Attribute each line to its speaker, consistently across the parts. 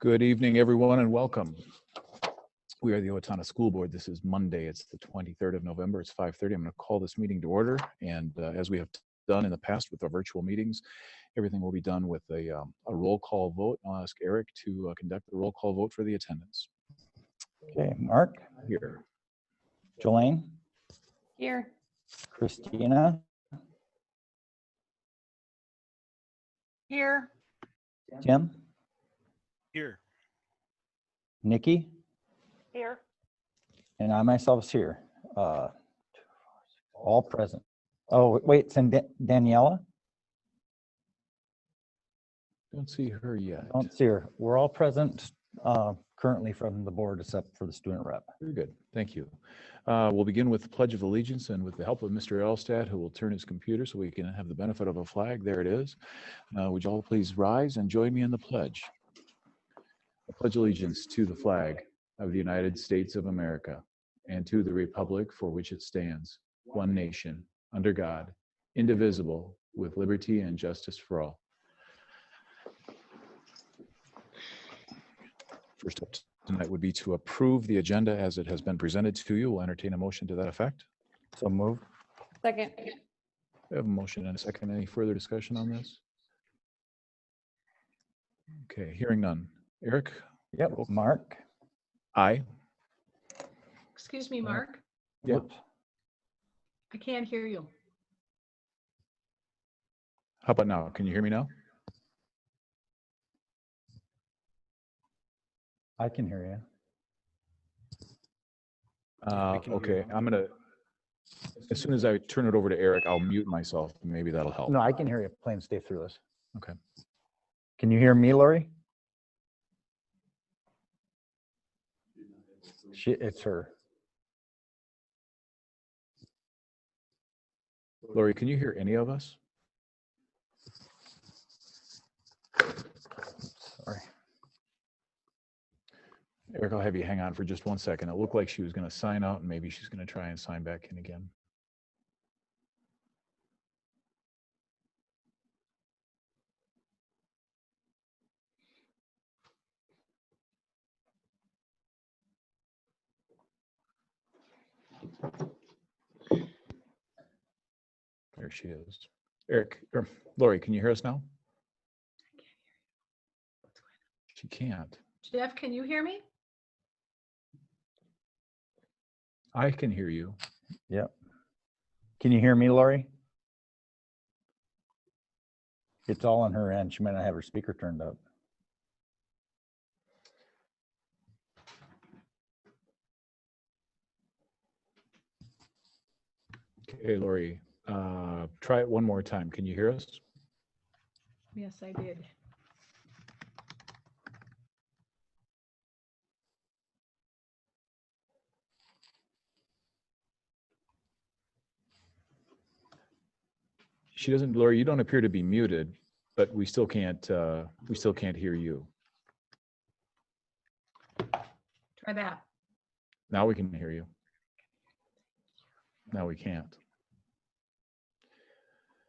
Speaker 1: Good evening, everyone, and welcome. We are the Owatonna School Board. This is Monday. It's the 23rd of November. It's 5:30. I'm going to call this meeting to order. And uh, as we have done in the past with our virtual meetings, everything will be done with a um, a roll call vote. I'll ask Eric to uh, conduct the roll call vote for the attendance
Speaker 2: Okay, Mark,
Speaker 1: here.
Speaker 2: Jolene,
Speaker 3: Here.
Speaker 2: Christina,
Speaker 3: Here.
Speaker 2: Tim,
Speaker 4: Here.
Speaker 2: Nikki,
Speaker 3: Here.
Speaker 2: and I myself is here. Uh, All present. Oh, wait, it's in Da- Daniela?
Speaker 1: Don't see her yet.
Speaker 2: Don't see her. We're all present uh, currently from the board except for the student rep.
Speaker 1: Very good. Thank you. Uh, We'll begin with the Pledge of Allegiance and with the help of Mr. Elstad, who will turn his computer so we can have the benefit of a flag. There it is. Uh, Would you all please rise and join me in the pledge? I pledge allegiance to the flag of the United States of America and to the republic for which it stands, one nation, under God, indivisible, with liberty and justice for all. First up tonight would be to approve the agenda as it has been presented to you. We'll entertain a motion to that effect.
Speaker 2: So moved.
Speaker 3: Second.
Speaker 1: We have a motion and a second. Any further discussion on this? Okay, hearing none. Eric?
Speaker 2: Yep, Mark.
Speaker 1: Aye.
Speaker 5: Excuse me, Mark,
Speaker 1: Yeah.
Speaker 2: Whoops.
Speaker 5: I can't hear you.
Speaker 1: How about now? Can you hear me now?
Speaker 2: I can hear you.
Speaker 1: Uh,
Speaker 4: can hear you.
Speaker 1: Okay, I'm gonna, as soon as I turn it over to Eric, I'll mute myself. Maybe that'll help.
Speaker 2: No, I can hear you. Plain stay through this.
Speaker 1: Okay.
Speaker 2: Can you hear me, Lori? She, it's her.
Speaker 1: Lori, can you hear any of us?
Speaker 2: Sorry.
Speaker 1: Eric, I'll have you hang on for just one second. It looked like she was gonna sign out and maybe she's gonna try and sign back in again. There she is. Eric, or Lori, can you hear us now? She can't.
Speaker 5: Jeff, can you hear me?
Speaker 1: I can hear you.
Speaker 2: Can you hear me, Lori? It's all on her end. She might not have her speaker turned up.
Speaker 1: Okay, Lori, uh, try it one more time. Can you hear us?
Speaker 5: Yes, I did.
Speaker 1: She doesn't, Lori, you don't appear to be muted, but we still can't, uh, we still can't hear you.
Speaker 5: Try that.
Speaker 1: Now we can hear you. Now we can't.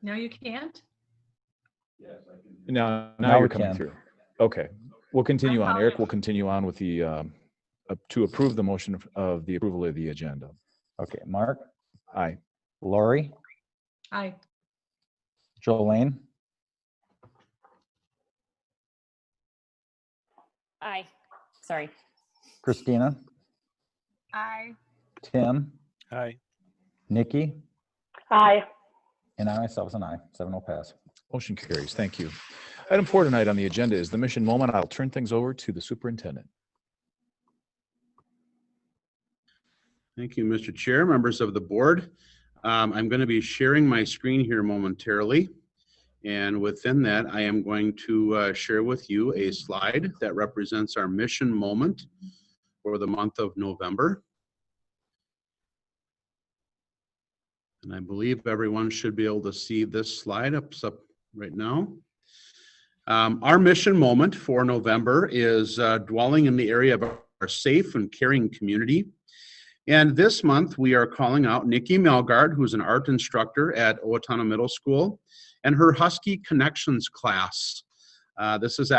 Speaker 5: No, you can't?
Speaker 1: Now,
Speaker 2: Now
Speaker 1: now you're
Speaker 2: we
Speaker 1: coming
Speaker 2: can.
Speaker 1: through. Okay, we'll continue on. Eric
Speaker 5: apologize.
Speaker 1: will continue on with the, um, uh, to approve the motion of- of the approval of the agenda.
Speaker 2: Okay, Mark,
Speaker 1: Aye.
Speaker 2: Lori,
Speaker 5: I,
Speaker 2: Jolene,
Speaker 3: Aye. Sorry.
Speaker 2: Christina,
Speaker 3: Aye.
Speaker 2: Tim,
Speaker 4: Hi.
Speaker 2: Nikki,
Speaker 3: Aye.
Speaker 2: and I myself is an aye. Seven will pass.
Speaker 1: Motion carries. Thank you. Item four tonight on the agenda is the mission moment. I'll turn things over to the superintendent.
Speaker 6: Thank you, Mr. Chair, members of the board. Um, I'm going to be sharing my screen here momentarily. And within that, I am going to uh, share with you a slide that represents our mission moment for the month of November. And I believe everyone should be able to see this slide up up right now. Um, Our mission moment for November is uh, dwelling in the area of our safe and caring community. And this month, we are calling out Nikki Melgard, who's an art instructor at Owatonna Middle School, and her Husky Connections class. Uh, this is